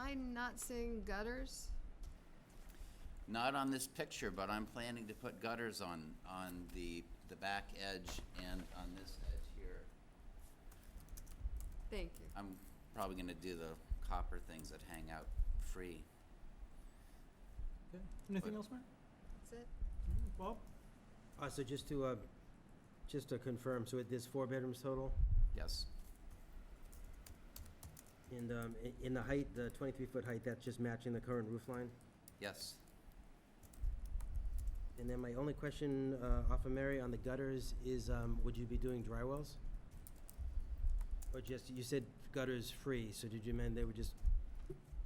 I not seeing gutters? Not on this picture, but I'm planning to put gutters on, on the, the back edge and on this edge here. Thank you. I'm probably gonna do the copper things that hang out free. Okay. Anything But- else, Mark? That's it? Bob? Uh, so just to, uh, just to confirm, so it, there's four bedrooms total, Yes, and, um, i- in the height, the twenty-three foot height, that's just matching the current roof line? yes. And then my only question, uh, off of Mary on the gutters is, um, would you be doing dry wells? Or just, you said gutters free, so did you mean they would just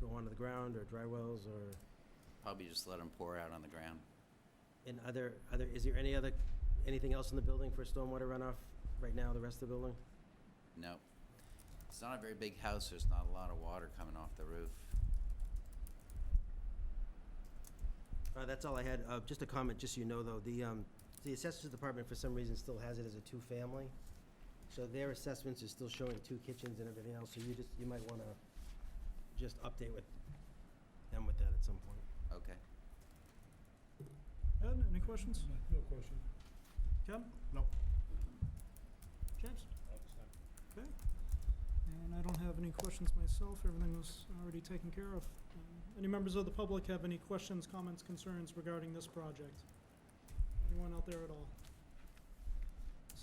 go onto the ground or dry wells or, Probably just let them pour out on the ground. and other, other, is there any other, anything else in the building for stormwater runoff right now, the rest of the building? No. It's not a very big house, there's not a lot of water coming off the roof. Uh, that's all I had. Uh, just a comment, just so you know, though, the, um, the assessors department for some reason still has it as a two-family. So their assessments are still showing two kitchens and everything else, so you just, you might wanna just update with them with that at some point. Okay. Ed, any questions? No question. Ken? No. James? Okay. And I don't have any questions myself. Everything was already taken care of. Um, Any members of the public have any questions, comments, concerns regarding this project? Anyone out there at all?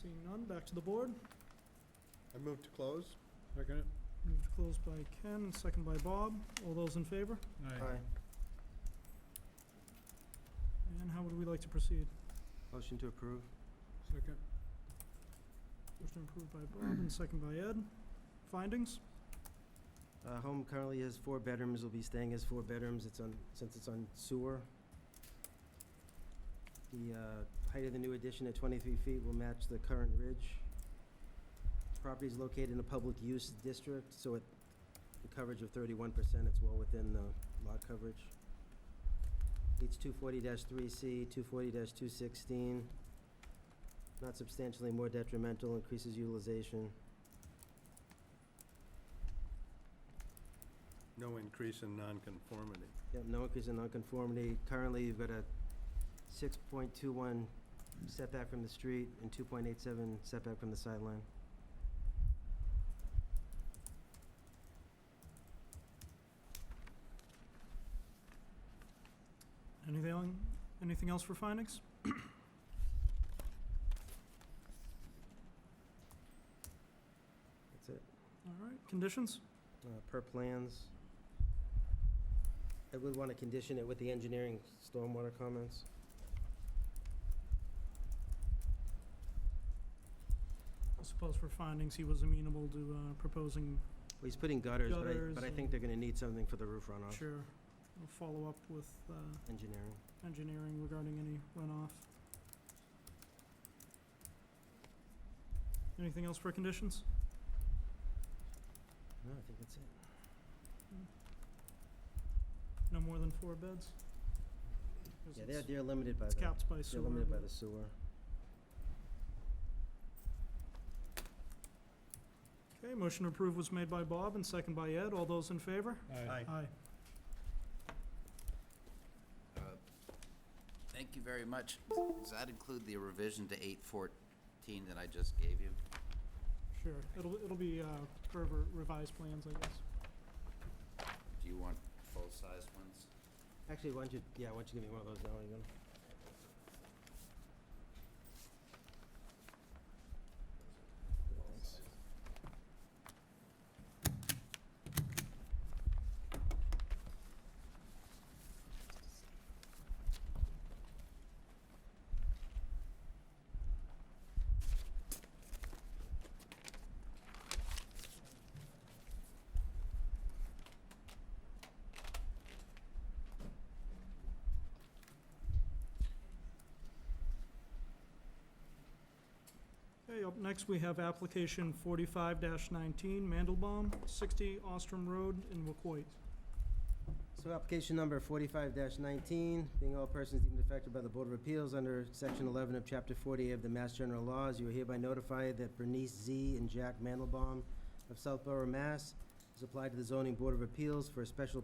Seeing none, back to the board. I move to close. Second it. Moved to close by Ken and second by Bob. All those in favor? Aye. And how would we like to proceed? Motion to approve. Second. Motion approved by Bob and second by Ed. Findings? Uh, home currently has four bedrooms, will be staying as four bedrooms, it's on, since it's on sewer. The, uh, height of the new addition at twenty-three feet will match the current ridge. Property is located in a public use district, so it, the coverage of thirty-one percent, it's well within the lot coverage. It's two forty three C, two forty two sixteen. Not substantially more detrimental, increases utilization. No increase in nonconformity. Yep, no increase in nonconformity. Currently, you've got a six point two one setback from the street and two point eight seven setback from the sideline. Anything, anything else for findings? That's it. All right, conditions? Uh, per plans. I would want to condition it with the engineering stormwater comments. I suppose for findings, he was amenable to uh, proposing, Well, he's putting gutters, but I, Gutters but I and- think they're gonna need something for the roof runoff, sure, we'll follow up with uh, engineering. engineering regarding any runoff. Anything else for conditions? No, I think that's it. No more than four beds? 'Cause Yeah, they're, it's- they're limited by It's the, capped by they're sewer. limited by but- the sewer. Okay, motion to approve was made by Bob and second by Ed. All those in favor? Aye. Aye. Uh, Thank you very much. Does that include the revision to eight fourteen that I just gave you? Sure, it'll, it'll be uh, per re- revised plans, I guess. Do you want full-size ones? Actually, why don't you, yeah, why don't you give me one of those now, you gonna? Thanks. Okay, up next, we have application forty-five nineteen, Mandelbaum, sixty Ostrom Road in Wacoit. So application number forty-five nineteen, being all persons deemed affected by the Board of Appeals under section eleven of chapter forty of the Mass General Laws, you are hereby notified that Bernice Z and Jack Mandelbaum of Southborough, Mass. has applied to the zoning Board of Appeals for a special